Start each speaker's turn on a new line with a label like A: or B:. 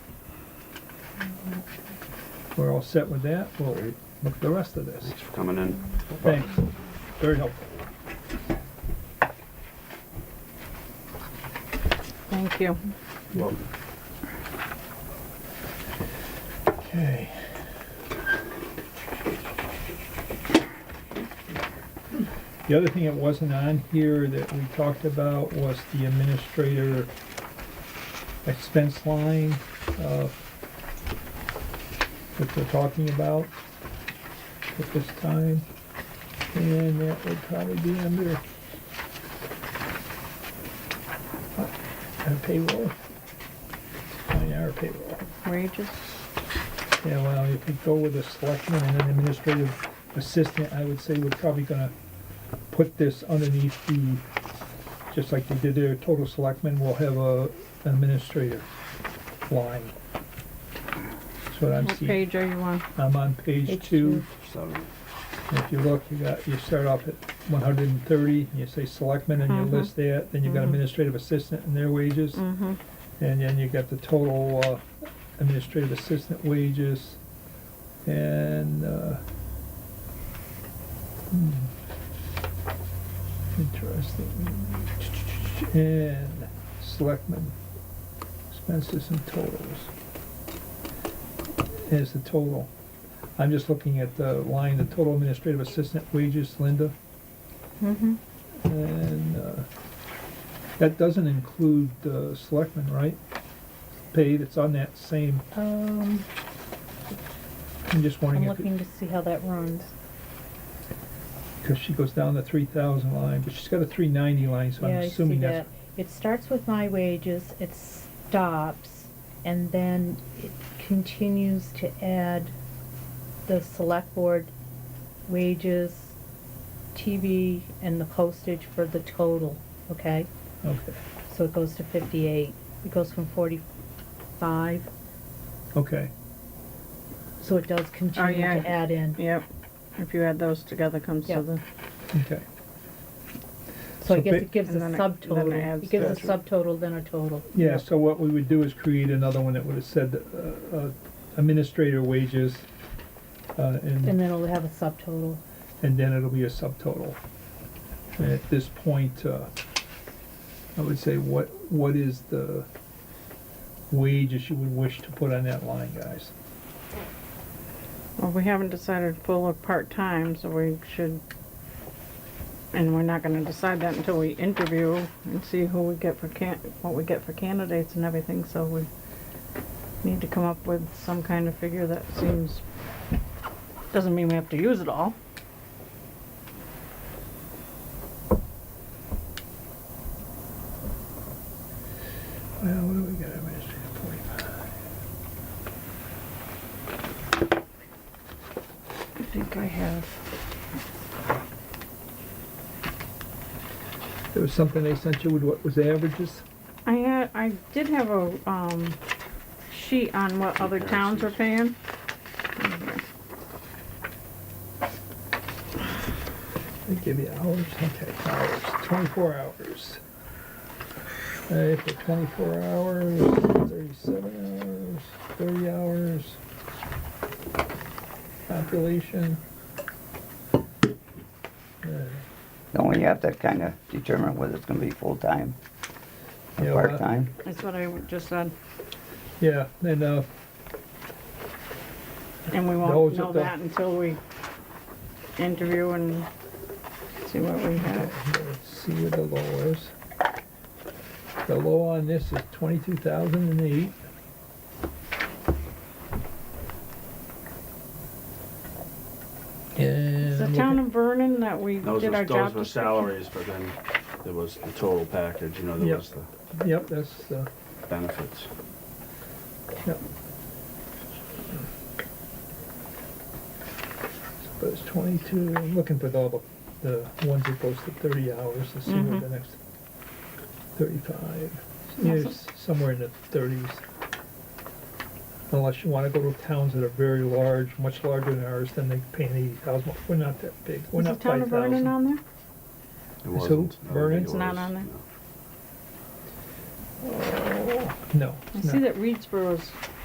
A: we're all set with that, we'll look at the rest of this.
B: Thanks for coming in.
A: Thanks, very helpful.
C: Thank you.
A: Okay. The other thing that wasn't on here that we talked about was the administrator expense line, uh, that we're talking about at this time. And that would probably be under uh, our payroll. On our payroll.
C: Wages?
A: Yeah, well, if we go with a selectman and an administrative assistant, I would say we're probably gonna put this underneath the, just like they did their total selectmen, we'll have a an administrator line. That's what I'm
C: What
A: seeing.
C: page are you on?
A: I'm on page
C: Page
A: two.
B: Seven.
A: And If you look, you got, you start off at one hundred and thirty, you say selectmen and you
C: Mhm.
A: list that, then you got
C: Mhm.
A: administrative assistant and their wages.
C: Mm-hmm.
A: And then you got the total uh, administrative assistant wages and, uh, hmm, interesting. And selectmen expenses and totals. Is the total. I'm just looking at the line, the total administrative assistant wages, Linda.
C: Mm-hmm.
A: And uh, that doesn't include the selectmen, right? Pay that's on that same,
D: Um,
A: I'm just
D: I'm
A: wondering if,
D: looking to see how that runs.
A: because she goes down the three thousand line, but she's got a three ninety line, so I'm
D: Yeah, I see
A: assuming
D: that.
A: that's.
D: It starts with my wages, it stops, and then it continues to add the select board wages, TV, and the postage for the total, okay?
A: Okay,
D: So it goes to fifty-eight, it goes from forty-five,
A: okay,
D: so it does continue
C: Oh, yeah.
D: to add in.
C: Yep. If you add those together, comes to
D: Yep.
C: the,
A: okay,
D: So I
A: So
D: guess
A: ba-
D: it gives a
C: And then it- then it
D: subtotal,
C: adds
D: it gives a
C: that.
D: subtotal, then a total.
A: yeah, so what we would do is create another one that would have said, uh, uh, administrator wages, uh,
D: And
A: and,
D: then it'll have a subtotal.
A: and then it'll be a subtotal. And at this point, uh, I would say, what, what is the wages you would wish to put on that line, guys?
C: well, we haven't decided full or part-time, so we should, and we're not gonna decide that until we interview and see who we get for can, what we get for candidates and everything, so we need to come up with some kind of figure that seems, doesn't mean we have to use it all.
A: Well, what do we got, administrative forty-five?
C: I think I have.
A: There was something they sent you with what was averages?
C: I had, I did have a, um, sheet on what other towns are paying.
A: They give you hours, okay, hours, twenty-four hours. Alright, for twenty-four hours, thirty-seven hours, thirty hours. Population. Alright,
E: Don't we have to kind of determine whether it's gonna be full-time or
A: yeah, well,
E: part-time?
C: That's what I just said,
A: Yeah, and, uh,
C: and we
A: Those
C: won't
A: at
C: know
A: the-
C: that until we interview and see what we have.
A: let's see what the low is. The low on this is twenty-two thousand and eight. And.
C: The
A: look
C: town
A: at-
C: of Vernon that we
B: Those
C: did
B: were,
C: our
B: those
C: job
B: were
C: description.
B: salaries, but then there was the total package, you know, there
A: Yep.
B: was the
A: Yep, that's, uh,
B: benefits.
A: yep. But it's twenty-two, I'm looking for all the, the ones that goes to thirty hours, let's see what
C: Mhm.
A: the next, thirty-five. Yeah,
C: Awesome.
A: it's somewhere in the thirties. Unless you wanna go to towns that are very large, much larger than ours, then they pay an eighty thousand, we're not that big, we're
C: Is the
A: not
C: town
A: five
C: of Vernon
A: thousand.
C: on there?
B: It
A: who?
B: wasn't. I don't think it
A: Vernon's
B: was,
C: not on there?
B: no.
A: No,
C: I
A: no.
C: see that Reedsboro's